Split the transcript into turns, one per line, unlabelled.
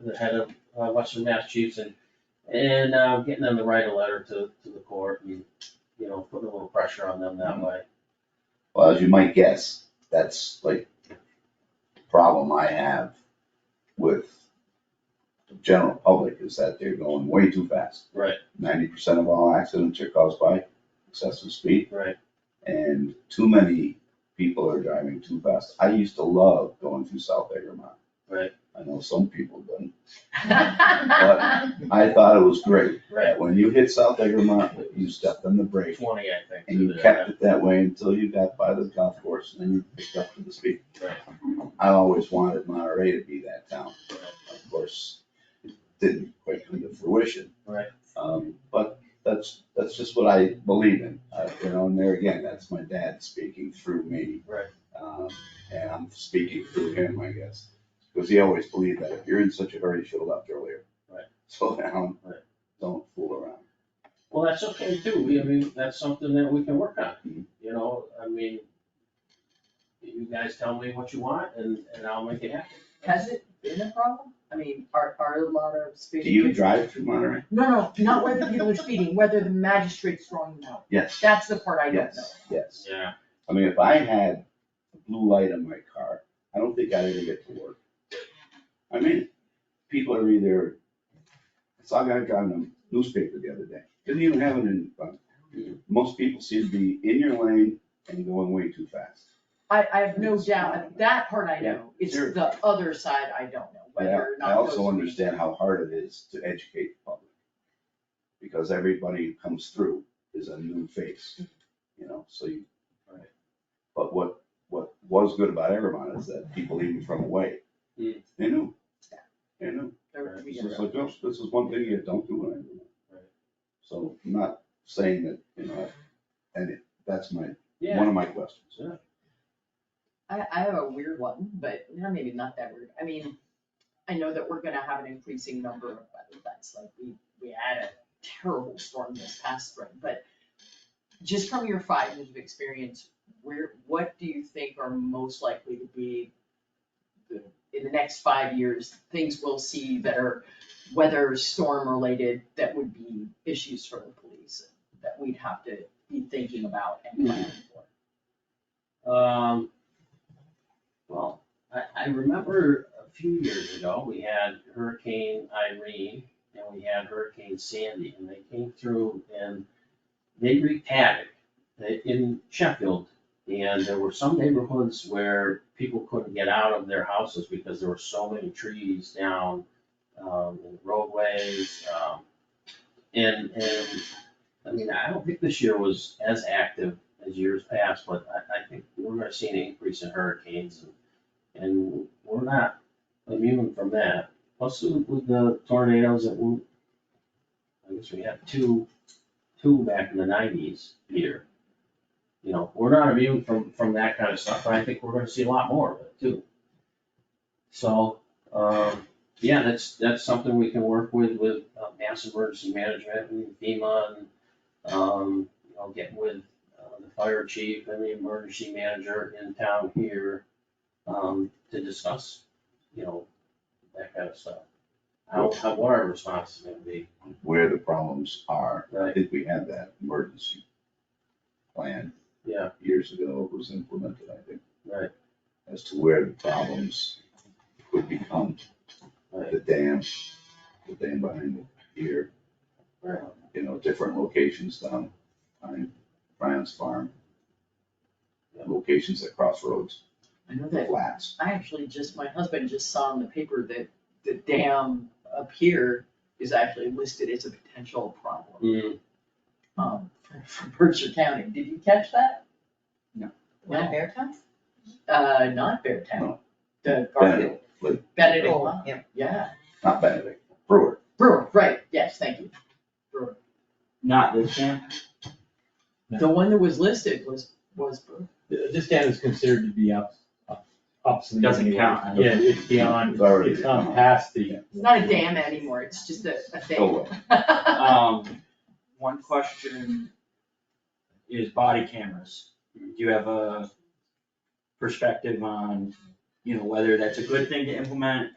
the head of uh, Western Massachusetts, and, and uh, getting them to write a letter to, to the court and, you know, putting a little pressure on them that way.
Well, as you might guess, that's like the problem I have with the general public is that they're going way too fast.
Right.
Ninety percent of all accidents are caused by excessive speed.
Right.
And too many people are driving too fast. I used to love going through South Egremont.
Right.
I know some people didn't. I thought it was great.
Right.
When you hit South Egremont, you stepped on the brake
Twenty, I think.
and you
to the-
kept it that way until you got by the golf course and then you picked up to the speed.
Right.
I always wanted Monterey to be that town.
Right.
Of course, it didn't quite come to fruition.
Right.
Um, but that's, that's just what I believe in, uh, you know, and there again, that's my dad speaking through me.
Right.
Um, and I'm speaking through him, I guess, because he always believed that if you're in such a hurry, you should have left earlier.
Right.
Slow down,
Right.
don't fool around.
Well, that's okay too, we, I mean, that's something that we can work
Mm-hmm.
on, you know, I mean, you guys tell me what you want and, and I'll make it happen.
Has it been a problem? I mean, are, are a lot of
Do
speeding?
you drive through Monterey?
No, no, not whether people are speeding, whether the magistrate's throwing them out.
Yes.
That's the part I don't know.
Yes, yes.
Yeah,
I mean, if I had a blue light on my car, I don't think I'd ever get to work. I mean, people are either, I saw a guy driving a newspaper the other day, didn't even have it in front. Most people seem to be in your lane and going way too fast.
I, I have no doubt, that part I know, it's
Sure.
the other side I don't know,
But
whether or
I
not.
also
those-
understand how hard it is to educate the public. Because everybody who comes through is a new face, you know, so you.
Right.
But what, what was good about Evermont is that people even from away,
Hmm.
they knew, they knew.
There we
This
go.
is like, "Oh, this is one thing you don't do in Evermont.
Right.
So I'm not saying that, you know, and it- that's my, one
yeah,
of my questions.
Yeah.
I, I have a weird one, but no, maybe not that weird. I mean, I know that we're gonna have an increasing number of weather events, like we, we had a terrible storm this past spring, but just from your five years of experience, where, what do you think are most likely to be the, in the next five years, things we'll see that are weather storm related that would be issues for the police that we'd have to be thinking about and planning for?
um, well, I, I remember a few years ago, we had Hurricane Irene and we had Hurricane Sandy, and they came through and they wreaked havoc They- in Sheffield. And there were some neighborhoods where people couldn't get out of their houses because there were so many trees down, um, in roadways, um, and, and, I mean, I don't think this year was as active as years past, but I, I think we're gonna see an increase in hurricanes and, and we're not immune from that. Plus with the tornadoes that we, I guess we had two, two back in the nineties here. You know, we're not immune from, from that kind of stuff, but I think we're gonna see a lot more of it too. So, um, yeah, that's, that's something we can work with, with uh, mass emergency management and FEMA and, um, you know, get with uh, the fire chief and the emergency manager in town here, um, to discuss, you know, that kind of stuff. How, how, what our response is gonna be,
Where the problems are, I
Right.
think we had that emergency plan
yeah,
years ago it was implemented, I think,
right,
as to where the problems would become.
right,
The dam, the dam behind the pier,
right,
you know, different locations down on Brian's farm. Locations at crossroads,
I know that
flats.
I actually just, my husband just saw in the paper that the dam up here is actually listed as a potential problem,
Mm,
um, for- for Berkshire County. Did you catch that?
No.
No,
bear town?
uh, not Beartown,
No.
the Garfield,
Benedict, like,
Benedict,
Oh,
Mine.
yeah.
yeah,
not Benedict, Brewer.
Brewer, right, yes, thank you.
Not this dam? No.
The one that was listed was, was Brewer.
Th- This dam is considered to be up, up- obsolete.
Doesn't
anyway.
count.
Yeah, it's beyond,
It's already-
it's not past the.
It's not a dam anymore, it's just a, a
Oh,
thing.
well.
Um, one question is body cameras. Do you have a perspective on, you know, whether that's a good thing to implement